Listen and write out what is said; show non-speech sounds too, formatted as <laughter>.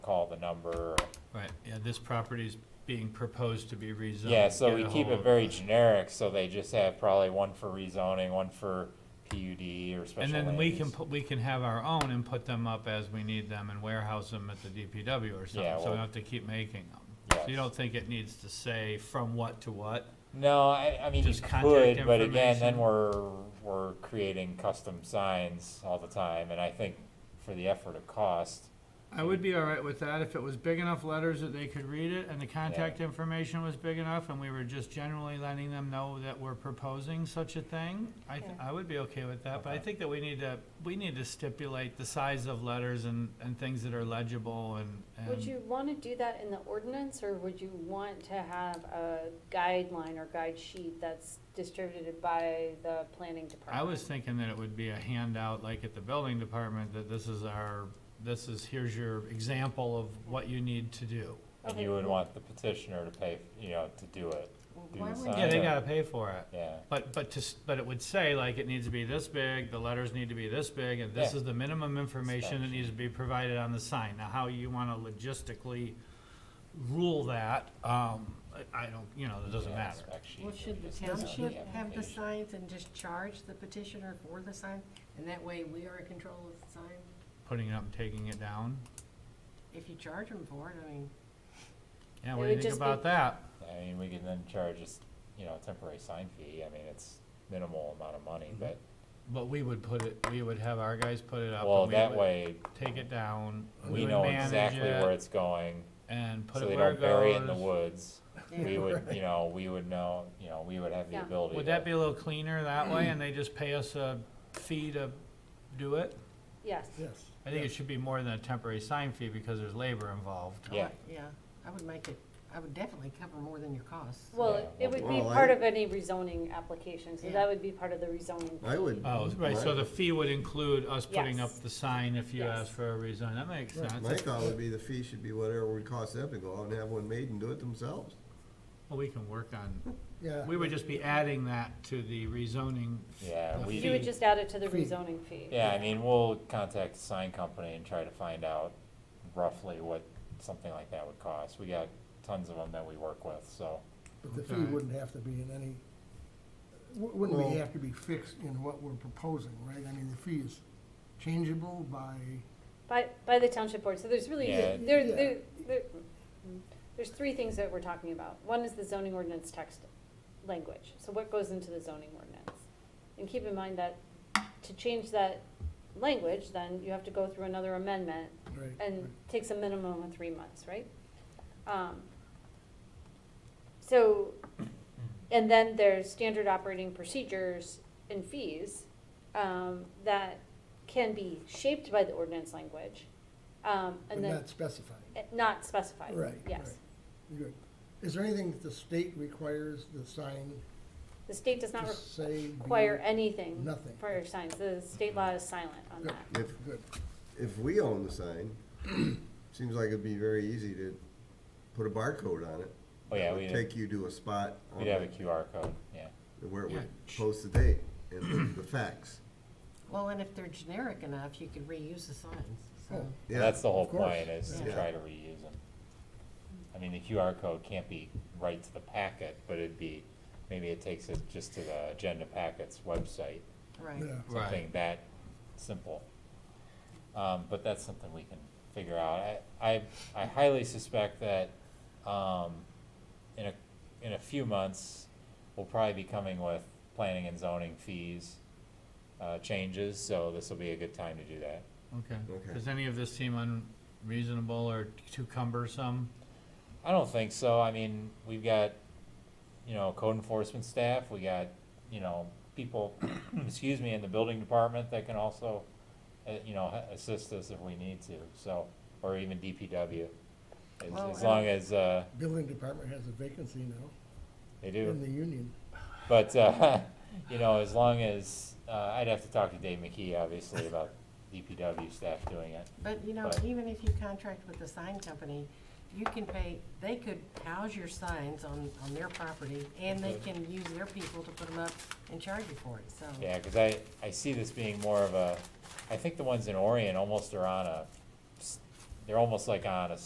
number. Right, yeah, this property's being proposed to be rezoned. Yeah, so Get we a keep it hold- very generic, so they just have probably one for rezoning, one for PUD or special land And then we can, use. put we can have our own and put them up as we need them and warehouse them at the DPW or Yeah, something, so we well- don't have to keep making them. So you Yes. don't think it needs to say from what to what? No, I, I mean, you Just contact could, but again, then information. we're, we're creating custom signs all the time, and I think for the effort of cost, I would be all right with that if it was big enough letters that they could read it and the contact information was big enough and we were just generally letting them know that we're proposing such a thing. I, th- I would be okay with that, but I Okay. think that we need to, we need to stipulate the size of letters and, and things that are legible and, Would and you want to do that in the ordinance, or would you want to have a guideline or guide sheet that's distributed by the planning department? I was thinking that it would be a handout like at the building department, that this is our, this is, here's your example of what you need to do. and Okay. you would want the petitioner to pay, you know, to do it, do Why the wouldn't sign. Yeah, they gotta pay for it. Yeah, But, but to, s- but it would say, like, it needs to be this big, the letters need to be this big, and this Yeah. is the minimum information that needs to be provided on the sign. Now, how you wanna logistically rule that, um, I- I don't, you know, it doesn't yeah, matter. spec sheet Well, or should just the put it uh, on township have the application. signs and just charge the petitioner for the sign? And that way we are in control of the sign? Putting it up and taking it down, If you charge them for it, I mean, yeah, It what do would you think just be- about that? I mean, we can then charge us, you know, a temporary sign fee, I mean, it's minimal amount of money, Mm-hmm. but, But we would put it, we would have our guys put it up, well, and we that would way, take it down, we we would know manage exactly where it, it's going, and put so it they where it don't bury it in the goes. <laughs> woods. We yeah, would, you know, we would know, you know, we would have the Yeah. ability. Would to- that be a little cleaner that way, and they just pay us a fee to do it? Yes, Yes. I think it should be more than a temporary sign fee because there's labor involved. Yeah, yeah, I would make it, I would definitely cover more than your costs. Yeah. well, it- it would be Well, I- part of any rezoning application, so Yeah. that would be part of the rezoning. I would. Oh, right, so the fee would include us putting up Yes. the sign if you Yes. ask for a reason. That makes Right, sense. My thought would be the fee should be whatever it would cost them to go out and have one made and do it themselves. Well, we can work on, Yeah. we would just be adding that to the rezoning. f- Yeah, the we- You would fee. just add it to the Fee. rezoning fee. yeah, I mean, we'll contact the sign company and try to find out roughly what something like that would cost. We got tons of them that we work with, so, But the Okay. fee wouldn't have to be in any, wou- wouldn't Well- we have to be fixed in what we're proposing, right? I mean, the fee is changeable by, By, by the township board, so there's really, Yeah. there, there, Yeah. there- there's three things that we're talking about. One is the zoning ordinance text language, so what goes into the zoning ordinance? And keep in mind that to change that language, then you have to go through another amendment, right? and takes a minimum of three months, right? Um, So, and then there's standard operating procedures and fees um, that can be shaped by the ordinance language. um, But And then, not specified, eh, not specified, Right, yes. good. Is there anything that the state requires the sign The state does not to say? be- require anything nothing. for your signs, the state law is silent on Good, that. If, good. if we own the sign, seems like it'd be very easy to put a barcode on it. oh yeah, That would we'd, Take you to a spot on we'd have a it QR code, yeah. where it Yeah. would post the date and the facts. Well, and if they're generic enough, you could reuse the signs, so. Oh. Yeah, That's the whole of course. point, is to Yeah. try to reuse them. I mean, the QR code can't be right to the packet, but it'd be, maybe it takes it just to the agenda packets website, Right. Yeah. Right. something that simple. Um, but that's something we can figure out. I, I, I highly suspect that, um, in a, in a few months, we'll probably be coming with planning and zoning fees, uh, changes, so this will be a good time to do that. Okay. Okay. Does any of this seem unreasonable or too cumbersome? I don't think so. I mean, we've got, you know, code enforcement staff, we got, you know, people, excuse me, in the building department that can also, uh, you know, ha- assist us if we need to, so, or even DPW. As, Well, as and- long as, uh, Building department has a vacancy now they in do, the union. but, uh, <laughs> you know, as long as, uh, I'd have to talk to Dave McKee, obviously, about DPW staff doing it. But, you know, But- even if you contract with the sign company, you can pay, they could house your signs on, on their property, and they can use their people to put them up and charge you for it, so. Yeah, cause I, I see this being more of a, I think the ones in Orion almost are on a, s- they're almost like on a